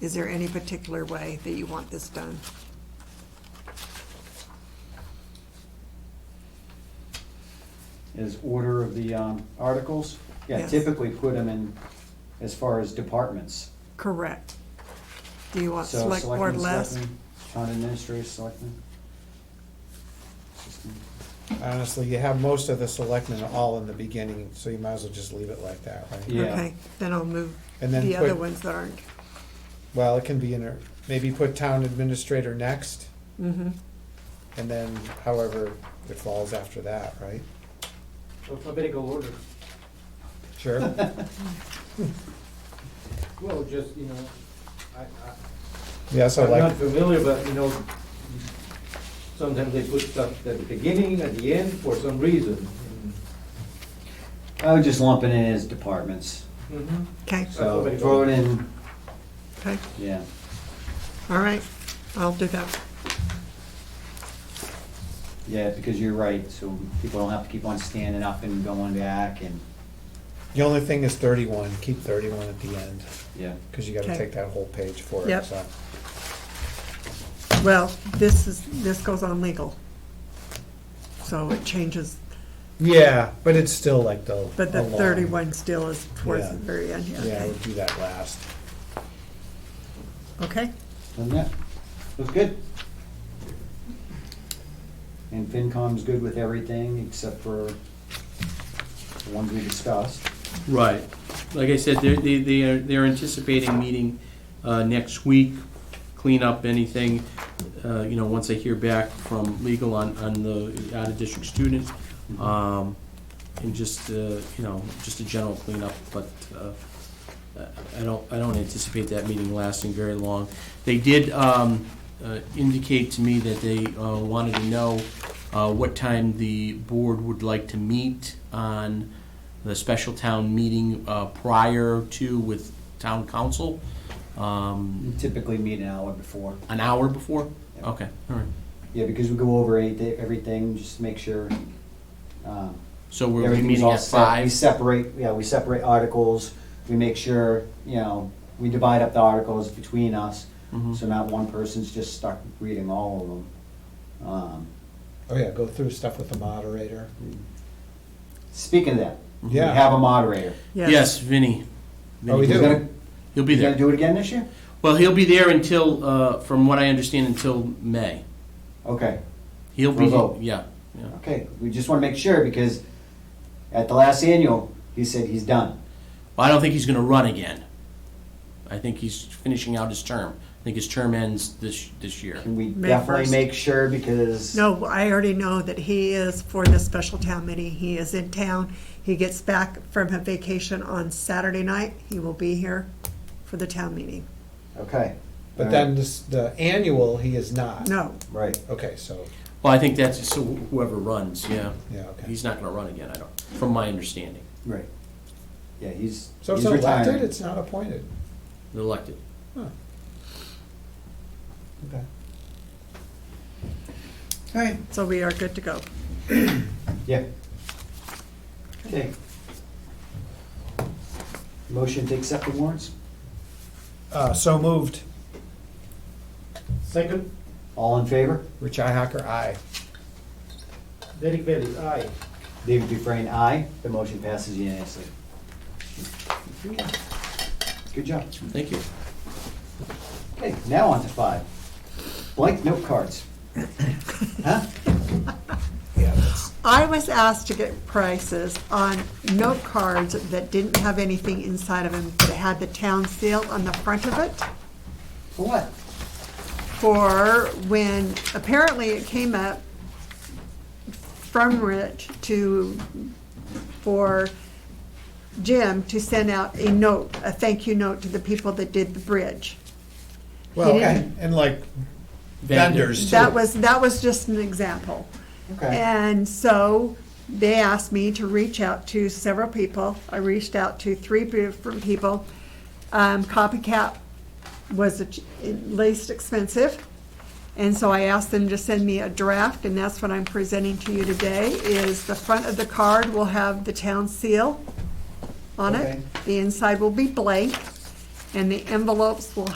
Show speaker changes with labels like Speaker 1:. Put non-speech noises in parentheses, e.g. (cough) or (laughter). Speaker 1: Is there any particular way that you want this done?
Speaker 2: is order of the um, articles. Yeah,
Speaker 1: Yes.
Speaker 2: typically put them in as far as departments.
Speaker 1: Correct. Do you want
Speaker 2: So
Speaker 1: Uh, select board
Speaker 2: selectmen,
Speaker 1: last?
Speaker 2: selectmen, Town administrator, selectmen. System.
Speaker 3: Honestly, you have most of the selectmen all in the beginning, so you might as well just leave it like that, right?
Speaker 2: Yeah.
Speaker 1: Okay, then I'll move
Speaker 3: And then
Speaker 1: the other
Speaker 3: put-
Speaker 1: ones that aren't.
Speaker 3: Well, it can be in, a maybe put town administrator next,
Speaker 1: Mm-hmm,
Speaker 3: and then however it falls after that, right?
Speaker 4: alphabetical order.
Speaker 3: Sure.
Speaker 4: Well, just, you know, I, I,
Speaker 3: (laughs) Yeah, so
Speaker 4: I'm not
Speaker 3: like,
Speaker 4: familiar, but, you know, sometimes they put stuff at the beginning, at the end, for some reason.
Speaker 2: I would just lump it in as departments.
Speaker 4: Mhm.
Speaker 1: okay,
Speaker 2: So
Speaker 4: Alphabetical.
Speaker 2: throw it in,
Speaker 1: okay,
Speaker 2: yeah.
Speaker 1: all right, I'll do that.
Speaker 2: Yeah, because you're right, so people don't have to keep on standing up and going back and,
Speaker 3: the only thing is thirty-one, keep thirty-one at the end,
Speaker 2: yeah.
Speaker 3: because you gotta
Speaker 1: Okay.
Speaker 3: take that whole page for it,
Speaker 1: Yep.
Speaker 3: so.
Speaker 1: Well, this is, this goes on legal. So it changes,
Speaker 3: Yeah, but it's still like the.
Speaker 1: but
Speaker 3: a
Speaker 1: the
Speaker 3: long-
Speaker 1: thirty-one still is towards the
Speaker 3: Yeah.
Speaker 1: very end, yeah,
Speaker 3: Yeah,
Speaker 1: okay.
Speaker 3: we'll do that last.
Speaker 1: Okay,
Speaker 2: Doesn't that, looks good. And FinCom's good with everything except for the ones we discussed.
Speaker 5: Right. Like I said, they're, they- they are, they're anticipating meeting uh, next week, clean up anything, uh, you know, once I hear back from legal on, on the out-of-district students. um, And just, uh, you know, just a general cleanup, but uh, I I don't, I don't anticipate that meeting lasting very long. They did um, uh, indicate to me that they uh, wanted to know uh, what time the board would like to meet on the special town meeting uh, prior to with town council, um,
Speaker 2: We Typically meet an hour before.
Speaker 5: an hour before?
Speaker 2: Yeah.
Speaker 5: Okay, all right.
Speaker 2: Yeah, because we go over eight- e-, everything, just make sure. um,
Speaker 5: So we're we're
Speaker 2: everything's
Speaker 5: meeting
Speaker 2: all
Speaker 5: at
Speaker 2: set. We
Speaker 5: five?
Speaker 2: separate, yeah, we separate articles, we make sure, you know, we divide up the articles between us,
Speaker 5: Mhm.
Speaker 2: so not one person's just stuck reading all of them. Um,
Speaker 3: Oh, yeah, go through stuff with the moderator.
Speaker 2: Speaking of that, we
Speaker 3: Yeah.
Speaker 2: have a moderator.
Speaker 1: yes,
Speaker 5: Yes, Vinny.
Speaker 3: Oh, we
Speaker 5: Vinny.
Speaker 3: do?
Speaker 2: He's gonna-
Speaker 5: He'll be
Speaker 2: You
Speaker 5: there.
Speaker 2: gonna do it again this year?
Speaker 5: Well, he'll be there until, uh, from what I understand, until May.
Speaker 2: Okay,
Speaker 5: He'll be,
Speaker 2: Revolt.
Speaker 5: yeah, yeah.
Speaker 2: okay, we just wanna make sure, because at the last annual, he said he's done.
Speaker 5: Well, I don't think he's going to run again. I think he's finishing out his term. I think his term ends this this year.
Speaker 2: Can we
Speaker 1: May
Speaker 2: definitely
Speaker 1: 1st.
Speaker 2: make sure, because.
Speaker 1: no, I already know that he is for this special town meeting, he is in town. He gets back from a vacation on Saturday night, he will be here for the town meeting.
Speaker 2: Okay.
Speaker 3: But
Speaker 2: All
Speaker 3: then this, the annual, he is not.
Speaker 1: No,
Speaker 2: Right,
Speaker 3: Okay, so,
Speaker 5: Well, I think that's so whoever runs, yeah.
Speaker 3: yeah, okay.
Speaker 5: He's not going to run again, I don't, from my understanding.
Speaker 2: right. Yeah, he's.
Speaker 3: So it's
Speaker 2: he's
Speaker 3: not elected,
Speaker 2: retiring.
Speaker 3: it's not appointed.
Speaker 5: They're elected.
Speaker 3: Okay.
Speaker 2: All right.
Speaker 1: so we are good to go.
Speaker 2: Yeah. Okay. Motion to accept the warrants?
Speaker 3: Uh, so moved.
Speaker 4: Second,
Speaker 2: All in favor?
Speaker 3: Rich Ihacker, aye.
Speaker 4: Derek Bailey, aye.
Speaker 2: David Dufresne, aye. The motion passes unanimously. Good job.
Speaker 5: Thank you.
Speaker 2: Okay, now on to five. Blank note cards. Huh?
Speaker 3: Yeah, that's,
Speaker 1: I was asked to get prices on note cards that didn't have anything inside of them, but it had the town seal on the front of it
Speaker 2: For what?
Speaker 1: for when, apparently it came up from Rich to, for Jim to send out a note, a thank you note to the people that did the bridge.
Speaker 3: well,
Speaker 1: didn't-
Speaker 3: and, and like vendors too.
Speaker 1: That was, that was just an example.
Speaker 2: Okay.
Speaker 1: And so they asked me to reach out to several people. I reached out to three different people. Um, Copycat was the ch- least expensive. And so I asked them to send me a draft, and that's what I'm presenting to you today, is the front of the card will have the town seal on
Speaker 2: Okay.
Speaker 1: it. The inside will be blank, and the envelopes will